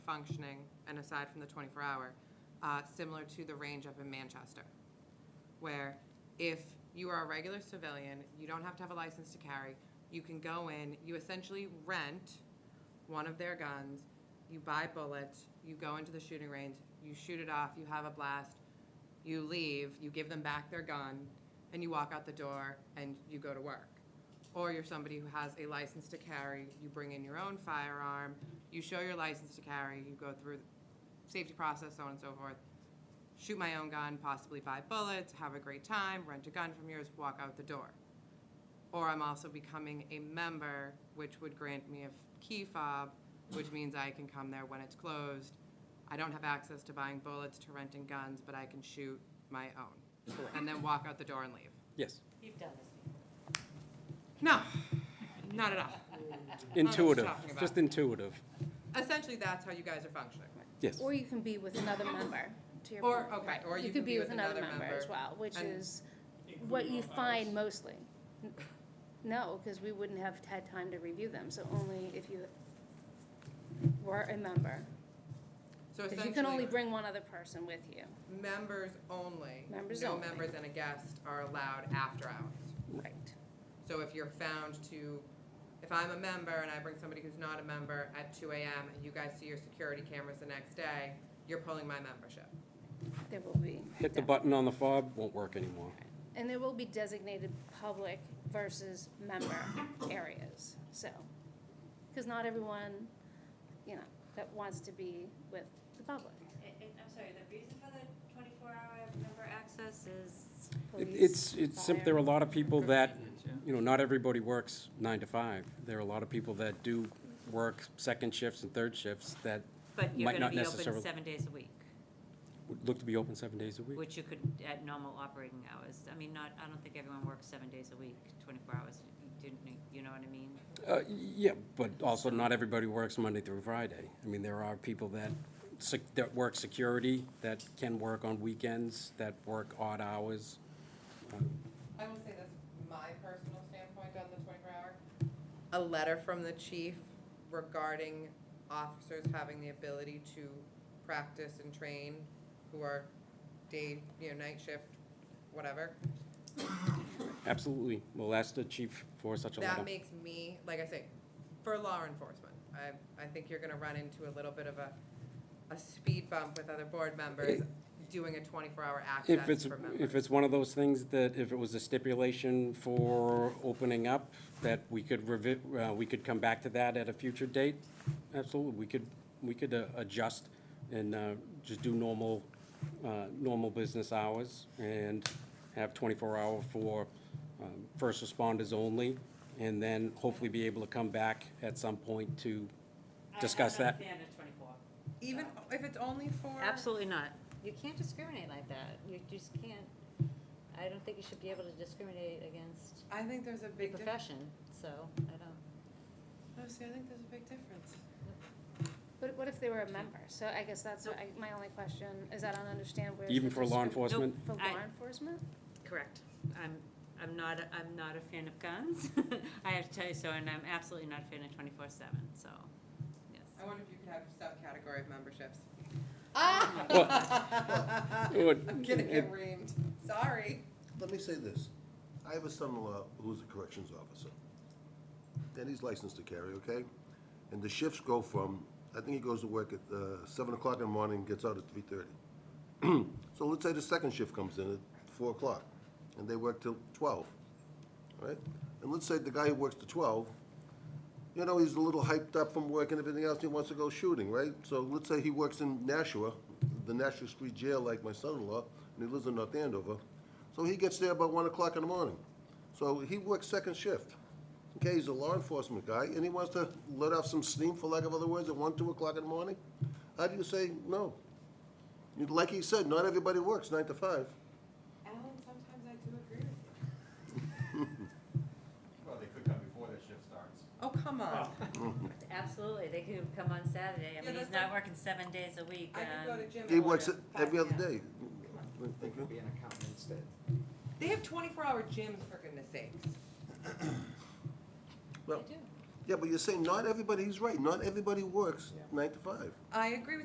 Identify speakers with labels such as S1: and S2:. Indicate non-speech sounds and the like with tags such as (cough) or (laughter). S1: functioning, and aside from the 24-hour, uh, similar to the range up in Manchester, where if you are a regular civilian, you don't have to have a license to carry, you can go in, you essentially rent one of their guns, you buy bullets, you go into the shooting range, you shoot it off, you have a blast, you leave, you give them back their gun, and you walk out the door and you go to work. Or you're somebody who has a license to carry, you bring in your own firearm, you show your license to carry, you go through the safety process, so on and so forth. Shoot my own gun, possibly buy bullets, have a great time, rent a gun from yours, walk out the door. Or I'm also becoming a member, which would grant me a key fob, which means I can come there when it's closed. I don't have access to buying bullets, to renting guns, but I can shoot my own. And then walk out the door and leave.
S2: Yes,
S3: You've done this before.
S1: No, not at all.
S2: intuitive,
S1: talking about.
S2: just intuitive,
S1: Essentially, that's how you guys are functioning.
S2: yes.
S4: Or you can be with another member, to your
S1: Or,
S4: point.
S1: okay, or
S4: oh, You could be with another member as well, which
S1: and-
S4: is what you find mostly. N- No, because we wouldn't have had time to review them, so only if you were a member.
S1: So
S4: Because you can only
S1: essentially,
S4: bring one other person with you.
S1: members only.
S4: Members
S1: No
S4: only.
S1: members and a guest are allowed after hours.
S4: Right.
S1: So if you're found to, if I'm a member and I bring somebody who's not a member at two AM and you guys see your security cameras the next day, you're pulling my membership.
S4: There will be.
S2: Hit the
S4: de-
S2: button on the fob, won't work anymore.
S4: And there will be designated public versus (coughs) member areas, so. Because not everyone, you know, that wants to be with the public.
S3: And- and I'm sorry, the reason for the 24-hour member access is,
S2: It-
S4: Police,
S2: It's, it's, sim-
S4: fire.
S2: there are a lot of people that, you know, not everybody works nine to five. There are a lot of people that do work second shifts and third shifts that
S3: but you're
S2: Might
S3: going to
S2: not
S3: be open
S2: necessarily-
S3: seven days a week,
S2: would look to be open seven days a week.
S3: which you could at normal operating hours. I mean, not, I don't think everyone works seven days a week, 24 hours, You didn't, you know what I mean?
S2: Uh, Yeah, but also not everybody works Monday through Friday. I mean, there are people that, sec- that work security, that can work on weekends, that work odd hours.
S1: I will say this, my personal standpoint on the twenty-four hour. A letter from the chief regarding officers having the ability to practice and train who are day, you know, night shift, whatever.
S2: Absolutely. We'll ask the chief for such a
S1: That
S2: letter.
S1: makes me, like I say, for law enforcement, I, I think you're gonna run into a little bit of a, a speed bump with other board members doing a twenty-four hour
S2: If
S1: access
S2: it's,
S1: for members.
S2: if it's one of those things that, if it was a stipulation for opening up, that we could revi, uh, we could come back to that at a future date, absolutely. We could, we could uh, adjust and uh, just do normal, uh, normal business hours and have 24-hour for um, first responders only, and then hopefully be able to come back at some point to discuss that.
S3: I'm not a fan of 24.
S1: Even if it's only for.
S3: Absolutely not. You can't discriminate like that. You just can't, I don't think you should be able to discriminate against
S1: I think there's a
S3: the
S1: big difference.
S3: profession, so I don't.
S1: No, see, I think there's a big difference.
S4: But what if they were a member? So I guess that's what I- my only question, is I don't understand where.
S2: Even
S4: the
S2: for law
S4: discrim-
S2: enforcement?
S4: For law
S3: I-
S4: enforcement?
S3: Correct. I'm, I'm not, a- I'm not a fan of guns. (laughs) I have to tell you so, and I'm absolutely not a fan of twenty-four seven, so, yes.
S1: I wonder if you could have subcategory of
S5: (laughs)
S1: memberships.
S2: Would-
S1: uh, I'm gonna
S2: it-
S1: get reamed, sorry.
S5: Let me say this. I have a son-in-law who's a corrections officer. And he's licensed to carry, okay? And the shifts go from, I think he goes to work at uh, seven o'clock in the morning and gets out at three thirty. (clears throat) So let's say the second shift comes in at four o'clock, and they work till twelve, all right? And let's say the guy who works till twelve, you know, he's a little hyped up from work and everything else, he wants to go shooting, right? So let's say he works in Nashua, the Nashua Street Jail, like my son-in-law, and he lives in North Andover. So he gets there about one o'clock in the morning. So he works second shift. Okay, he's a law enforcement guy, and he wants to let off some steam, for lack of other words, at one, two o'clock in the morning? How do you say no? You- Like he said, not everybody works nine to five.
S1: Alan, sometimes I do agree with you.
S6: Well, they could come before their shift starts.
S1: Oh, come on,
S3: Absolutely, they could come on Saturday. I
S1: Yeah,
S3: mean, he's
S1: that's
S3: not
S1: like-
S3: working seven days a week.
S1: I could go
S3: um,
S1: to gym.
S5: He
S1: at
S5: works it
S1: 5
S5: every other
S1: p.m.
S5: day.
S6: They could be an accountant instead.
S1: They have twenty-four hour gyms, for goodness sakes.
S5: Well, Yeah, but you're saying not everybody, he's right, not everybody works
S6: Yeah.
S5: nine to five.
S1: I agree with